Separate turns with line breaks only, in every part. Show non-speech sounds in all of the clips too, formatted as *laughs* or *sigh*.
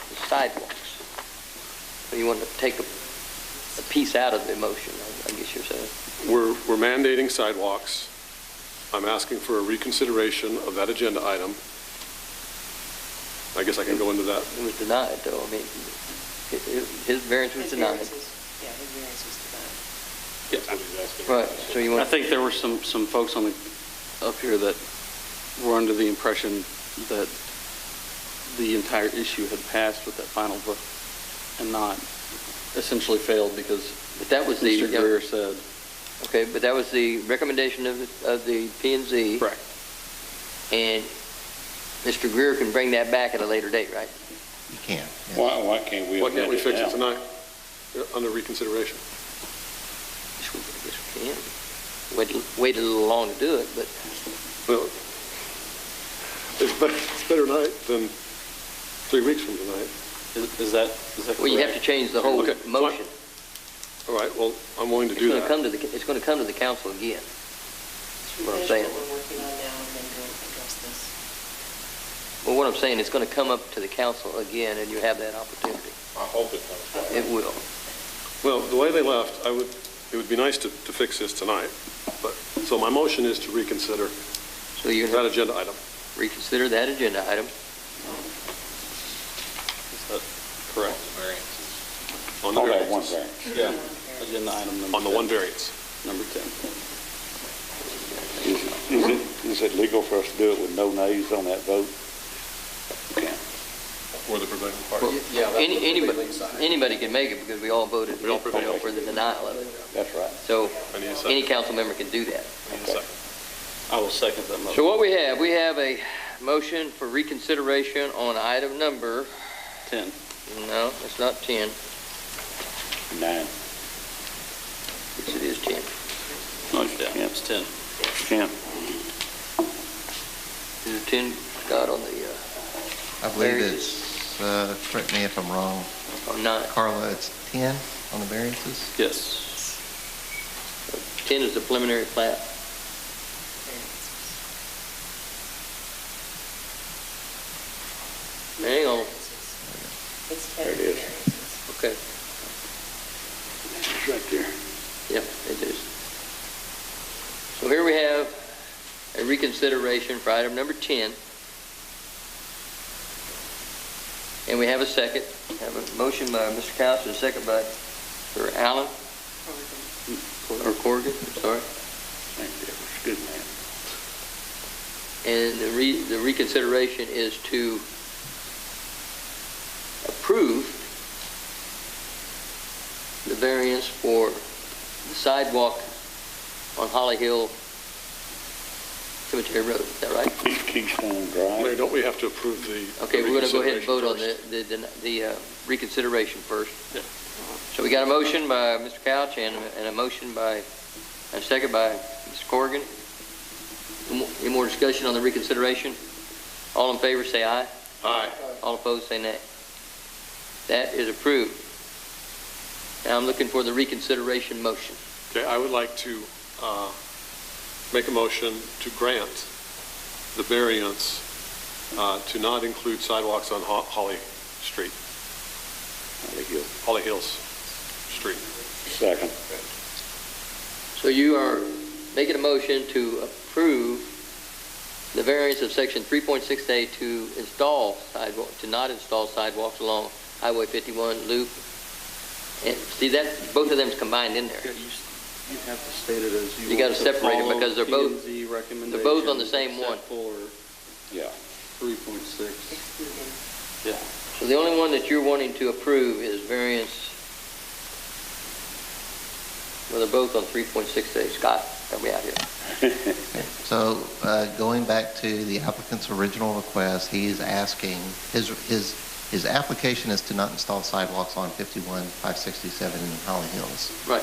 sidewalks. So you want to take a, a piece out of the motion, I- I guess you're saying.
We're we're mandating sidewalks. I'm asking for a reconsideration of that agenda item. I guess I can go into that.
It was denied, though, I mean, hi- hi- his variance was
His
denied.
variance was- Yeah, his variance was denied.
Right, so you
I
want,
think there were some, some folks on the, up here that were under the impression that the entire issue had passed with that final vote and not essentially failed because
but that was the,
Mr. Greer said.
Mm-hmm.
okay, but that was the recommendation of, the- of the P and Z.
Correct.
And Mr. Greer can bring that back at a later date, right?
You can't. yeah.
Why, why can't we
Why can't we
amend
fix it
now?
tonight uh, under reconsideration?
Yes, we- yes, we can. Wait, wait a little long to do it, but
Well, It's better- it's better tonight than three weeks from tonight.
Is is that, is that correct?
Well, you have to change the whole
Okay, fine.
motion.
All right, well, I'm willing to
It's
do
going to come
that.
to the, it's going to come to the council again.
We
Well, I'm
finish
saying-
What we're working on now and then go address this.
Well, what I'm saying, it's going to come up to the council again, and you have that opportunity.
I hope it comes back.
It will.
Well, the way they left, I would, it would be nice to to fix this tonight, but, so my motion is to reconsider
So you're
that
going to
agenda item.
reconsider that agenda item.
Is that correct?
on the
All
variance.
that one thing.
Yeah. Agenda item number.
On the one
10.
variance.
Number 10.
Is it- Is it, is it legal for us to do it with no nays on that vote? Okay.
For the prevailing
Any- Anybody, anybody can make it because we all voted
We all prevailed.
for the denial of it.
That's right.
So
I need a second.
any council member can do that.
I need a second.
I will second that motion.
So what we have, we have a motion for reconsideration on item number,
10.
no, it's not 10,
Nine.
yes, it is 10.
No, yeah, it's 10.
Ten.
Is it 10, Scott, on the, uh,
I believe
There it
it's, uh, correct me if I'm wrong,
uh, on 9?
Carla, it's 10 on the variances?
Yes.
10 is the preliminary plat. Hang on.
It's
There
ten
it is.
variances.
Okay.
It's right there.
Yep, it is. So here we have a reconsideration for item number 10. And we have a second. We Have a motion by Mr. Couch and a second by Sir Allen, or Corrigan, sorry.
Thank you. It's good, man.
And the re, the reconsideration is to approve the variance for the sidewalk on Holly Hill Cemetery Road, is that right?
Key- Keystone Drive.
Mayor, don't we have to approve the the
Okay, we're gonna go ahead and vote on the,
reconsideration
the, the- the uh, reconsideration first. Uh-huh.
Yeah.
So we got a motion by Mr. Couch and, and a motion by, and a second by Mr. Corrigan. Any more- Any more discussion on the reconsideration? All in favor, say aye.
first? Aye.
All opposed, say nay. That is approved. Now I'm looking for the reconsideration motion.
Okay, I would like to uh, make a motion to grant the variance uh, to not include sidewalks on Ho- Holly Street,
Holly Hill.
Holly Hills Street.
Second.
So you are making a motion to approve the variance of section 3.6A to install sidewalk, to not install sidewalks along Highway 51 loop. And see that, both of them's combined in there.
You you have to state it as you.
You gotta
want to
separate it
follow
because they're both-
P&Z
they're both on the same
recommendations
one.
except For
Yeah.
3.6.
*laughs* Excluding
So the only one that you're wanting to approve is variance, well, they're both on 3.6A. Scott, help me out here.
So uh, going back to the applicant's original request, he is asking, his, his, his application is to not install sidewalks on 51, 567 and Holly Hills.
Right.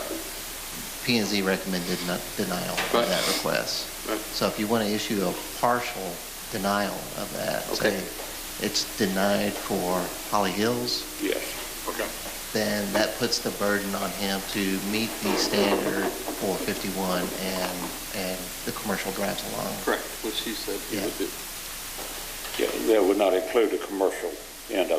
p and Z recommended not- denial of
Right.
that request.
Right.
So if you want to issue a partial denial of that,
Okay.
say it's denied for Holly Hills,
Yes.
Okay.
then that puts the burden on him to meet the standard for 51 and, and the commercial drives along.
Correct, which he said he
Yeah.
would do.
Yeah, that would not include the commercial end of